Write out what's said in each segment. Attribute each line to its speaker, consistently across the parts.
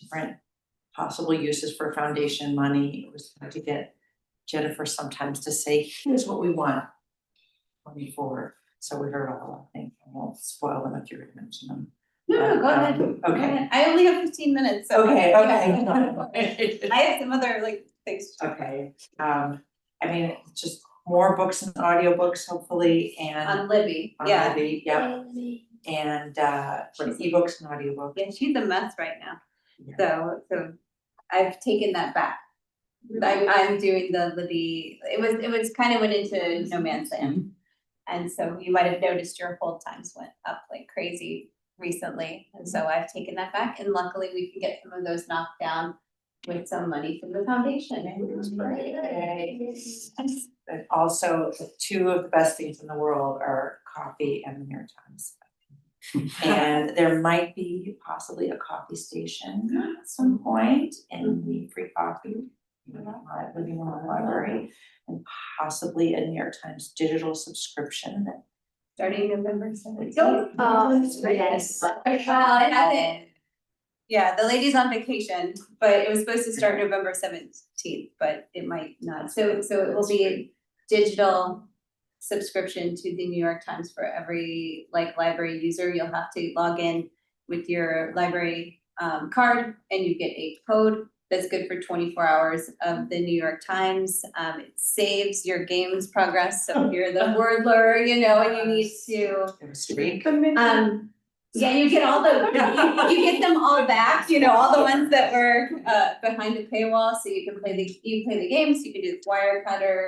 Speaker 1: different possible uses for foundation money. It was hard to get Jennifer sometimes to say, here's what we want moving forward. So we heard all, I think, I won't spoil them if you already mentioned them.
Speaker 2: No, no, go
Speaker 1: Um,
Speaker 2: ahead. Go
Speaker 1: okay.
Speaker 2: ahead. I only have fifteen minutes, so.
Speaker 1: Okay,
Speaker 2: yeah.
Speaker 1: okay.
Speaker 2: I have some other like things. to talk about.
Speaker 1: Okay, um, I mean, just more books and audiobooks hopefully and
Speaker 2: On Libby,
Speaker 1: on
Speaker 2: Um, yeah,
Speaker 1: Libby, yep, and uh, for ebooks and audiobooks.
Speaker 2: yeah, she's a mess right now,
Speaker 1: Yeah.
Speaker 2: so, so I've taken that back. I, I'm doing the Libby, it was, it was kind of went into no man's land. And so you might have noticed your hold times went up like crazy recently, and so I've taken that back, and luckily we can get some of those knocked down with some money from the foundation.
Speaker 1: But also, two of the best things in the world are coffee and the New York Times. And there might be possibly a coffee station at some point and we free coffee. you know, uh, Living room library and possibly a New York Times digital subscription that
Speaker 2: Starting November seventeenth.
Speaker 3: Oh, yes.
Speaker 2: Well, it hasn't. Um, Yeah, the lady's on vacation, but it was supposed to start November seventeenth, but it might not. So so it will be a digital subscription to the New York Times for every like library user. You'll have to log in with your library um card and you get a code that's good for twenty-four hours of the New York Times. Um it saves your game's progress, so if you're the wordler, you know, and you need to
Speaker 1: it was free.
Speaker 2: um, yeah, you get all the, you get them all back, you know, all the ones that were uh behind a paywall, so you can play the, you can play the games, you can do the wire cutter,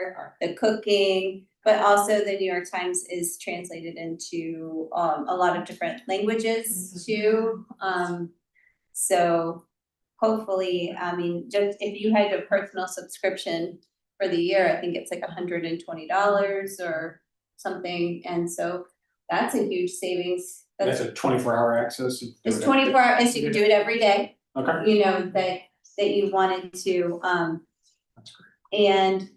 Speaker 2: the cooking. But also the New York Times is translated into um a lot of different languages too, um. So hopefully, I mean, just if you had a personal subscription for the year, I think it's like hundred and twenty dollars or something, and so that's a huge savings.
Speaker 4: That's
Speaker 2: That's,
Speaker 4: a twenty-four hour access. you can do
Speaker 2: it's
Speaker 4: it every-
Speaker 2: twenty-four hours, you can do it every day,
Speaker 4: Okay,
Speaker 2: you know, that, that you wanted to, um,
Speaker 4: that's great.
Speaker 2: and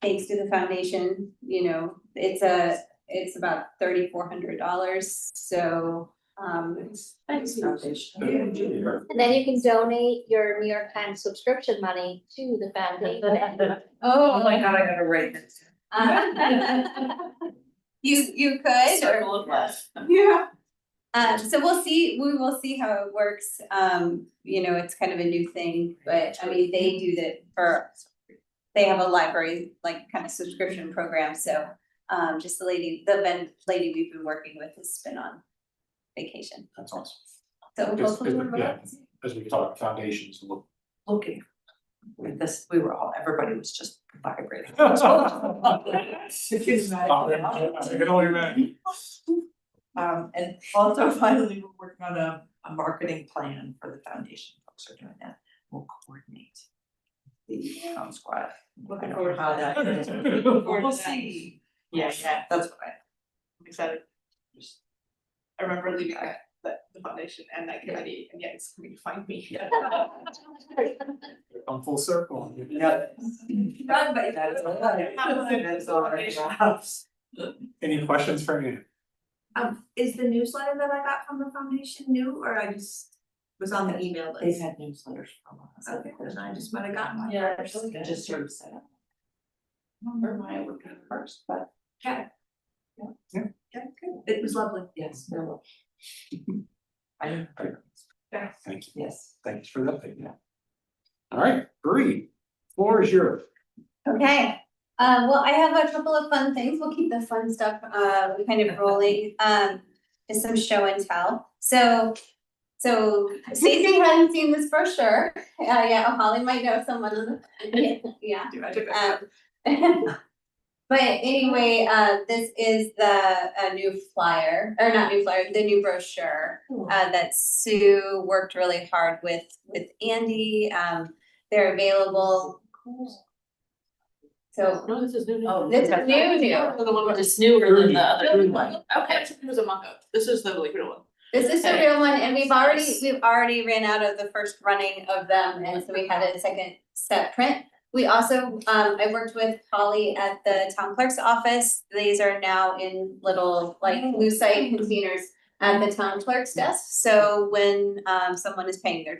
Speaker 2: thanks to the foundation, you know, it's a, it's about thirty-four hundred dollars, so, um,
Speaker 1: Thanks, foundation.
Speaker 3: And then you can donate your New York Times subscription money to the foundation.
Speaker 1: Oh my god, I gotta write this.
Speaker 2: um, you, you could, or.
Speaker 1: Circle of life.
Speaker 2: Yeah. Um, so we'll see, we will see how it works, um, you know, it's kind of a new thing, but I mean, they do that for. They have a library, like kind of subscription program, so, um, just the lady, the ven- lady we've been working with has been on vacation,
Speaker 4: That's awesome.
Speaker 2: so
Speaker 4: Because-
Speaker 2: hopefully.
Speaker 4: because-
Speaker 2: we'll-
Speaker 4: yeah. As we talk about foundations, we'll.
Speaker 1: Looking. With this, we were all, everybody was just vibrating.
Speaker 4: Oh, I can only imagine.
Speaker 1: Um, and also finally, we're working on a, a marketing plan for the foundation, folks are doing that, we'll coordinate. The town squad, looking over how that is, we'll see, yeah, yeah, that's what I,
Speaker 5: I'm excited. Just, I remember leaving
Speaker 1: Okay.
Speaker 5: that, that, the foundation and that committee, and yet it's coming to find me.
Speaker 4: Come full circle.
Speaker 1: yeah.
Speaker 2: Run, but-
Speaker 1: That is all right, that is all right.
Speaker 4: Any questions for me?
Speaker 6: Um, is the newsletter that I got from the foundation new, or I just was on the email
Speaker 1: They've
Speaker 6: list?
Speaker 1: had newsletters for a while. so
Speaker 6: Okay, then I just might have gotten one.
Speaker 1: Yeah, Just sort of set up. Remember my work first, but.
Speaker 6: Okay.
Speaker 1: Yeah.
Speaker 4: Yeah.
Speaker 1: Yeah, good,
Speaker 6: It was lovely.
Speaker 1: yes, there will. I don't,
Speaker 4: Thank you.
Speaker 1: yes.
Speaker 4: Thanks for the update. Yeah. All right, Bree, floor is yours.
Speaker 2: Okay, um, well, I have a couple of fun things, we'll keep the fun stuff, uh, kind of rolling, um, just some show and tell, so. So Stacy hasn't seen this for sure, uh, yeah, Holly might know someone on the, yeah.
Speaker 5: Do I take
Speaker 2: Uh,
Speaker 5: that?
Speaker 2: Um, But anyway, uh, this is the, uh, new flyer, or not new flyer, the new brochure, uh, that Sue worked really hard with, with Andy, um, they're available. So
Speaker 7: No, this is new.
Speaker 1: Oh,
Speaker 2: this is new, new,
Speaker 7: The one which is newer than the other
Speaker 1: New
Speaker 7: one.
Speaker 5: Okay, so it was a mock-up, this is the like real one.
Speaker 2: This is the real one, and we've already, we've already ran out of the first running of them, and so we had a second set print. We also, um, I worked with Holly at the town clerk's office, these are now in little, like, lucite containers at the town clerk's desk, so when, um, someone is paying their